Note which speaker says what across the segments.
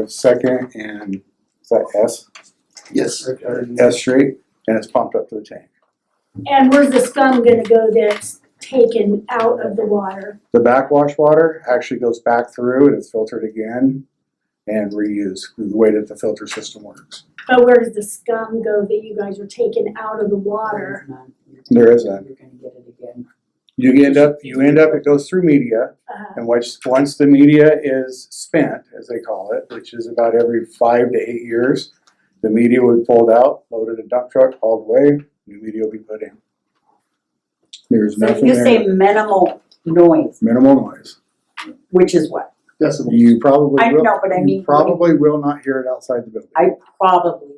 Speaker 1: a second and is that S?
Speaker 2: Yes.
Speaker 1: S Street, and it's pumped up to the tank.
Speaker 3: And where's the scum gonna go that's taken out of the water?
Speaker 1: The backwash water actually goes back through and it's filtered again and reused through the way that the filter system works.
Speaker 3: But where does the scum go that you guys were taking out of the water?
Speaker 1: There is none.
Speaker 4: You're gonna get it again.
Speaker 1: You end up, you end up, it goes through media,
Speaker 3: Uh,
Speaker 1: and once, once the media is spent, as they call it, which is about every five to eight years, the media would pulled out, loaded a dump truck, hauled away, new media will be put in. There's
Speaker 4: So
Speaker 1: nothing
Speaker 4: you say
Speaker 1: there,
Speaker 4: minimal noise,
Speaker 1: minimal noise.
Speaker 4: which is what?
Speaker 2: Decibel.
Speaker 1: You probably
Speaker 4: I
Speaker 1: will,
Speaker 4: know, but I
Speaker 1: you
Speaker 4: mean-
Speaker 1: probably will not hear it outside the building.
Speaker 4: I probably,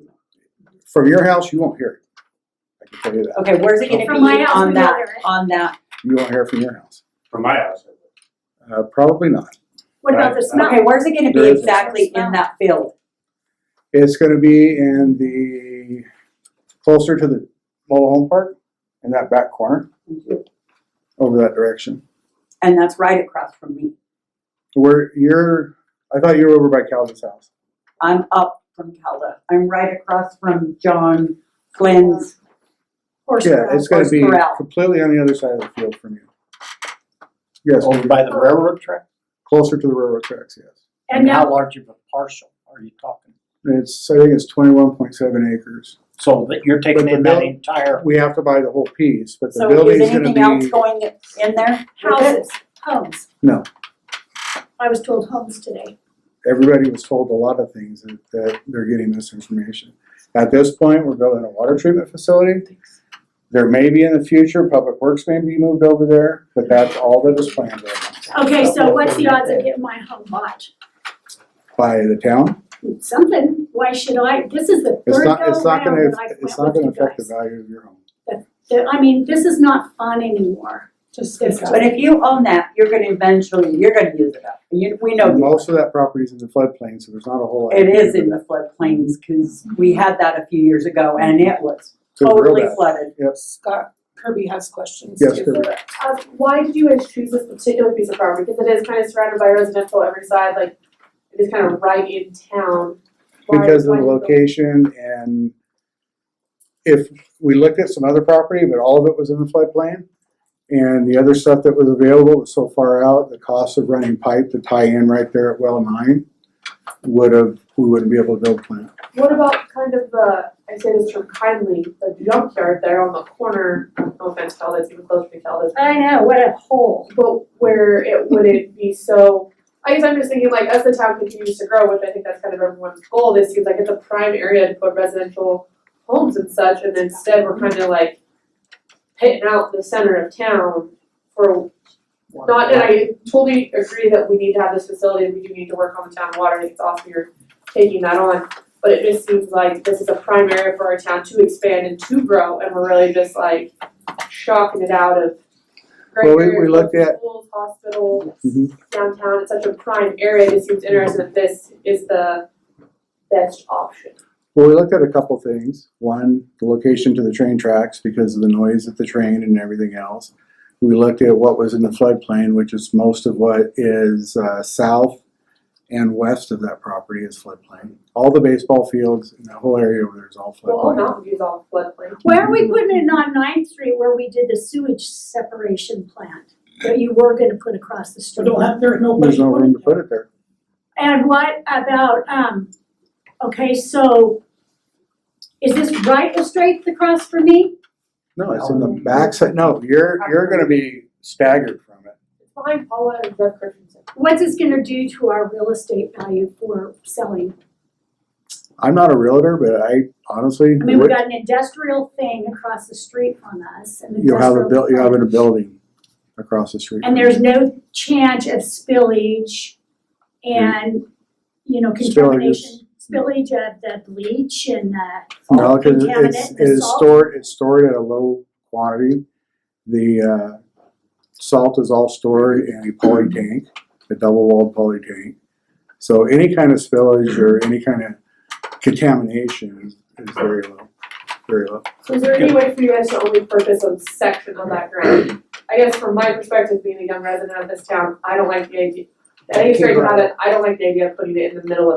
Speaker 1: From your house, you won't hear it. I can tell you that.
Speaker 4: okay, where's it gonna
Speaker 3: From my
Speaker 4: be
Speaker 3: house,
Speaker 4: on
Speaker 3: we
Speaker 4: that,
Speaker 3: gather it.
Speaker 4: on that?
Speaker 1: You won't hear it from your house.
Speaker 5: From my house.
Speaker 1: Uh, probably not.
Speaker 3: What about the
Speaker 4: Okay,
Speaker 3: smell?
Speaker 4: where's it gonna
Speaker 1: There
Speaker 4: be
Speaker 1: is-
Speaker 4: exactly in that field?
Speaker 1: It's gonna be in the, closer to the mobile home park, in that back corner, over that direction.
Speaker 4: And that's right across from me.
Speaker 1: Where you're, I thought you were over by Calvin's house.
Speaker 4: I'm up from Calda. I'm right across from John Flynn's.
Speaker 3: Horse
Speaker 1: Yeah, it's gonna
Speaker 4: Horse
Speaker 1: be
Speaker 4: corral.
Speaker 1: completely on the other side of the field from you. Yes,
Speaker 2: Over by the railroad track?
Speaker 1: closer to the railroad tracks, yes.
Speaker 3: And
Speaker 2: How
Speaker 3: now,
Speaker 2: large of a parcel are you talking?
Speaker 1: It's, I think it's twenty-one point seven acres.
Speaker 2: So that you're taking
Speaker 1: But the
Speaker 2: in that
Speaker 1: bill-
Speaker 2: entire,
Speaker 1: We have to buy the whole piece, but the
Speaker 4: So is
Speaker 1: building's gonna
Speaker 4: anything else
Speaker 1: be,
Speaker 4: going in there?
Speaker 3: houses, homes.
Speaker 1: No.
Speaker 3: I was told homes today.
Speaker 1: everybody was told a lot of things that, that they're getting this information. At this point, we're building a water treatment facility. There may be in the future, public works may be moved over there, but that's all that is planned right now
Speaker 3: Okay, so what's the odds of getting my home bought?
Speaker 1: by the town.
Speaker 3: Something, why should I, this is the
Speaker 1: It's
Speaker 3: third
Speaker 1: not,
Speaker 3: go
Speaker 1: it's not gonna,
Speaker 3: around that I've
Speaker 1: it's
Speaker 3: went
Speaker 1: not
Speaker 3: with
Speaker 1: gonna
Speaker 3: you
Speaker 1: affect the
Speaker 3: guys.
Speaker 1: value of your home.
Speaker 3: That- I mean, this is not fun anymore. Just.
Speaker 4: But if you own that, you're gonna eventually, you're gonna use it up. You, we know you.
Speaker 1: Most of that property is in the floodplain, so there's not a whole lot.
Speaker 4: It is in the floodplains, cause we had that a few years ago and it was
Speaker 1: It's real
Speaker 4: totally
Speaker 1: bad.
Speaker 4: flooded.
Speaker 6: Scott Kirby has questions
Speaker 1: Yes,
Speaker 6: too.
Speaker 1: Kirby.
Speaker 7: Uh, why did you guys choose this particular piece of property? Because it is kind of surrounded by residential every side, like, it is kind of right in town. Why-
Speaker 1: because of
Speaker 7: why
Speaker 1: the
Speaker 7: did you-
Speaker 1: location and if we looked at some other property, but all of it was in the floodplain. And the other stuff that was available was so far out, the cost of running pipe to tie in right there at well nine would have, we wouldn't be able to build plant.
Speaker 7: What about kind of the, I say this term kindly, the junkyard there on the corner, no offense, Cal, that's even closer to Cal, that's-
Speaker 3: I know, what a hole.
Speaker 7: but where it wouldn't be so, I guess I'm just thinking like, as the town continues to grow, which I think that's kind of everyone's goal, this seems like it's a prime area to put residential homes and such, and instead we're kind of like pitting out the center of town for not, and I totally agree that we need to have this facility, we do need to work on the town water, and it's awesome you're taking that on. But it just seems like this is a prime area for our town to expand and to grow, and we're really just like shocking it out of great
Speaker 1: Well, we- we
Speaker 7: areas,
Speaker 1: looked at-
Speaker 7: schools, hospitals,
Speaker 1: Mhm.
Speaker 7: downtown, it's such a prime area, it just seems interesting that this is the best option.
Speaker 1: Well, we looked at a couple things. One, the location to the train tracks because of the noise of the train and everything else. We looked at what was in the floodplain, which is most of what is uh, south and west of that property is floodplain. All the baseball fields and that whole area over there is all
Speaker 7: Well, all
Speaker 1: floodplain.
Speaker 7: Mountain View's all floodplain.
Speaker 3: Where are we putting it on Ninth Street where we did the sewage separation plant that you were gonna put across the
Speaker 2: we
Speaker 3: street?
Speaker 2: don't have, there's no
Speaker 1: There's
Speaker 2: place to
Speaker 1: no
Speaker 2: put it.
Speaker 1: room to put it there.
Speaker 3: And what about, um, okay, so is this right straight across from me?
Speaker 1: No, it's in the backside. No, you're, you're gonna be staggered from it.
Speaker 7: It's behind Paula and Jeff Christensen.
Speaker 3: What's this gonna do to our real estate value for selling?
Speaker 1: I'm not a realtor, but I honestly,
Speaker 3: I mean, we got an industrial thing across the street from us, an
Speaker 1: you'll have a,
Speaker 3: industrial.
Speaker 1: buil- you'll have
Speaker 3: park.
Speaker 1: a building across the street.
Speaker 3: And there's no chance of spillage and, you know, contamination. Spillage of the bleach and the
Speaker 1: No, because it's,
Speaker 3: contaminant,
Speaker 1: it
Speaker 3: the
Speaker 1: is
Speaker 3: salt.
Speaker 1: stored, it's stored at a low quantity. The, uh, salt is all stored in a poly tank, a double-walled poly tank. So any kind of spillage or any kind of contamination is, is very low, very low.
Speaker 7: So is there any way for you guys to only purchase a section of that ground? I guess from my perspective, being a young resident of this town, I don't like the idea, I think it's great to have it, I don't like the idea of putting it in the middle of